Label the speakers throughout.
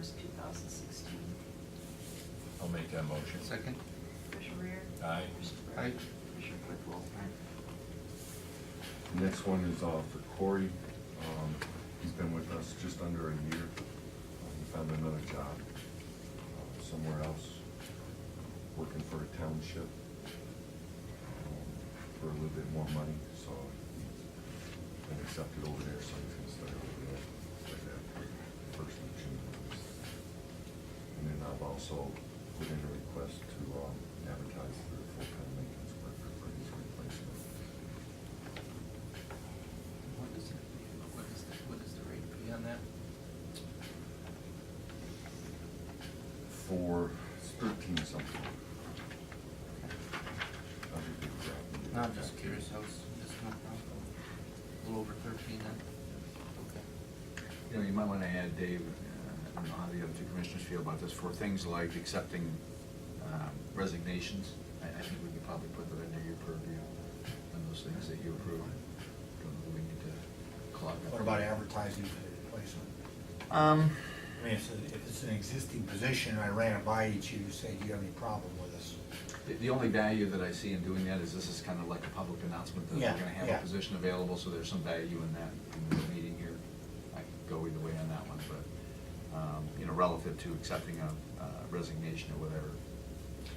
Speaker 1: thousand sixteen.
Speaker 2: I'll make that motion.
Speaker 3: Second.
Speaker 1: Commissioner Rear?
Speaker 2: Aye.
Speaker 1: Commissioner Brand?
Speaker 3: Aye.
Speaker 1: Commissioner Clickwell?
Speaker 4: The Next one is uh, for Corey. Um, He's been with us just under a year. Uh, He found another job uh, somewhere else, working for a township um, for a little bit more money, so he's been accepted over there, so he's gonna start over there. like that, First of June. And then I've also put in a request to um, advertise for a full-time maintenance worker for his replacement.
Speaker 3: What is it, what is, the- what is the rate be on that?
Speaker 4: for thirteen something. I'll be good with that.
Speaker 3: No, I'm just curious, I was, just not, a little over thirteen then? Okay.
Speaker 5: You know, you might want to add, Dave, uh, I don't know how the other two commissioners feel about this, for things like accepting um, resignations, I, I think we could probably put that under your purview, and those things that you approve. Don't know that we need to clog up.
Speaker 6: What about advertising for the replacement?
Speaker 5: Um,
Speaker 6: I mean, if it's- if it's an existing position, I ran it by each, you say, do you have any problem with us?
Speaker 5: the, the only value that I see in doing that is this is kind of like a public announcement that
Speaker 6: Yeah,
Speaker 5: we're gonna have
Speaker 6: yeah.
Speaker 5: a position available, so there's some value in that, in the meeting here. I could go either way on that one, but, um, you know, relative to accepting a uh, resignation or whatever,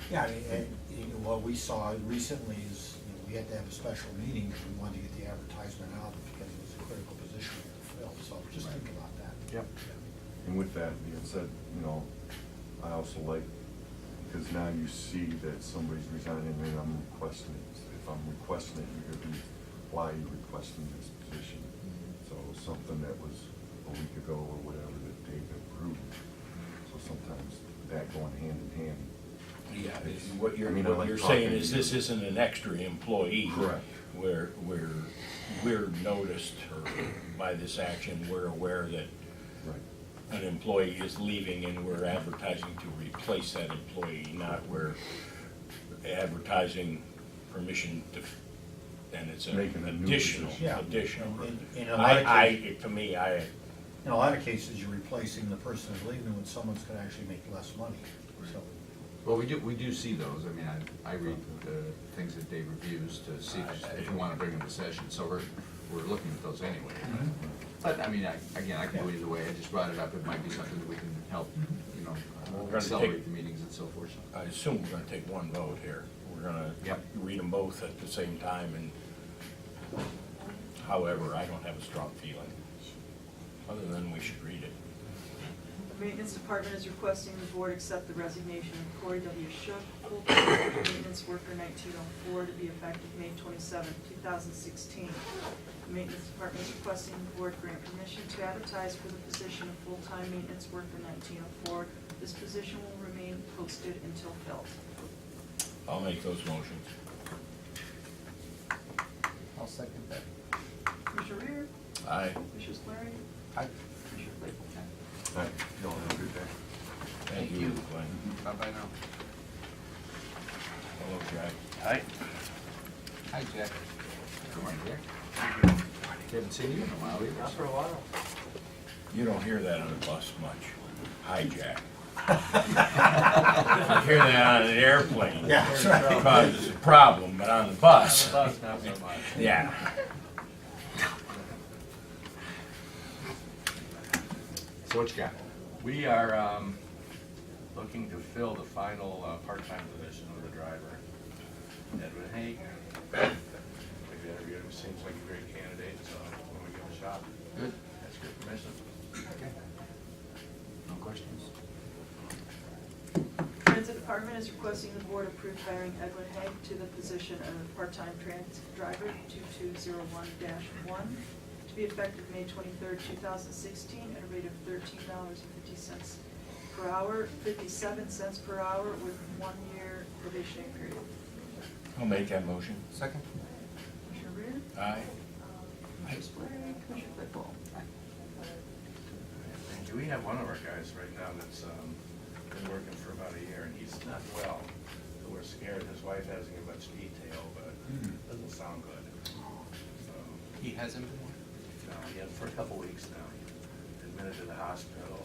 Speaker 6: Yeah, I mean, and, you know, what we saw recently is, you know, we had to have a special meeting because we wanted to get the advertisement out because it was a critical position we had to fill, so just think about that.
Speaker 5: Yep.
Speaker 4: And with that being said, you know, I also like, because now you see that somebody's resigning and I'm requesting it. If I'm requesting it, you're gonna be, why are you requesting this position? So
Speaker 3: Mm-hmm.
Speaker 4: something that was a week ago or whatever that Dave approved. So sometimes that going hand in hand.
Speaker 2: Yeah, it's- what
Speaker 4: I
Speaker 2: you're,
Speaker 4: mean, I
Speaker 2: what
Speaker 4: like
Speaker 2: you're
Speaker 4: talking
Speaker 2: saying
Speaker 4: to
Speaker 2: is
Speaker 4: you.
Speaker 2: this isn't an extra employee.
Speaker 4: Correct.
Speaker 2: Where, where we're noticed or by this action, we're aware that
Speaker 4: Right.
Speaker 2: an employee is leaving and we're advertising to replace that employee, not we're advertising permission to, and it's an
Speaker 4: Making a new
Speaker 2: additional,
Speaker 4: position.
Speaker 6: Yeah.
Speaker 2: additional.
Speaker 6: And- and- and a lot of
Speaker 2: I, I, to me, I,
Speaker 6: In a lot of cases, you're replacing the person who's leaving when someone's gonna actually make less money, so.
Speaker 5: Well, we do, we do see those, I mean, I, I read the things that Dave reviews to see if if you wanna bring them to session, so we're, we're looking at those anyway.
Speaker 2: Mm-hmm.
Speaker 5: But, I mean, I, again, I can go either way, I just brought it up, it might be something that we can help, you
Speaker 2: Mm-hmm. We're gonna
Speaker 5: know,
Speaker 2: take-
Speaker 5: accelerate the meetings and so forth.
Speaker 2: I assume we're gonna take one vote here. We're gonna
Speaker 5: Yep.
Speaker 2: read them both at the same time and however, I don't have a strong feeling, other than we should read it.
Speaker 1: The Maintenance Department is requesting the board accept the resignation of Corey W. Shook, full-time maintenance worker nineteen oh four, to be effective May twenty-seventh, two thousand sixteen. The Maintenance Department is requesting the board grant permission to advertise for the position of full-time maintenance worker nineteen oh four. This position will remain posted until filled.
Speaker 2: I'll make those motions.
Speaker 3: I'll second that.
Speaker 1: Commissioner Reer?
Speaker 2: Aye.
Speaker 1: Commissioner Clary?
Speaker 3: Aye.
Speaker 1: Commissioner Claypool?
Speaker 4: All right, y'all have a good day.
Speaker 2: Thank you, Glenn.
Speaker 3: Bye-bye now.
Speaker 2: Hello, Jack. Aye.
Speaker 3: Hi, Jack.
Speaker 5: Good morning, Dick. Haven't seen you in a while either. so-
Speaker 3: a while.
Speaker 2: You don't hear that on the bus much. Hi, Jack. You hear that on an airplane.
Speaker 6: Yeah, that's right.
Speaker 2: It Causes a problem, but on the bus,
Speaker 3: not so much.
Speaker 2: yeah.
Speaker 5: So what you got?
Speaker 7: We are um, looking to fill the final uh, part-time position of the driver. Edwin Haig. We've interviewed him, seems like a great candidate, so I'm gonna give him a shot.
Speaker 5: Good.
Speaker 7: That's your permission.
Speaker 5: Okay. No questions?
Speaker 1: Transit Department is requesting the board approve hiring Edwin Haig to the position of part-time transit driver 2201-1 to be effective May 23rd, 2016, at a rate of $13.50 per hour, 57 cents per hour with one-year probationary period.
Speaker 2: I'll make that motion.
Speaker 3: Second?
Speaker 1: Commissioner Reer?
Speaker 2: Aye.
Speaker 1: Um, Commissioner Spillier? Commissioner Claypool?
Speaker 7: And Do we have one of our guys right now that's um, been working for about a year, and he's not well, so we're scared. His wife hasn't given much detail, but it doesn't sound good. So,
Speaker 3: He hasn't
Speaker 7: no,
Speaker 3: been.
Speaker 7: he had for a couple weeks now, admitted to the hospital,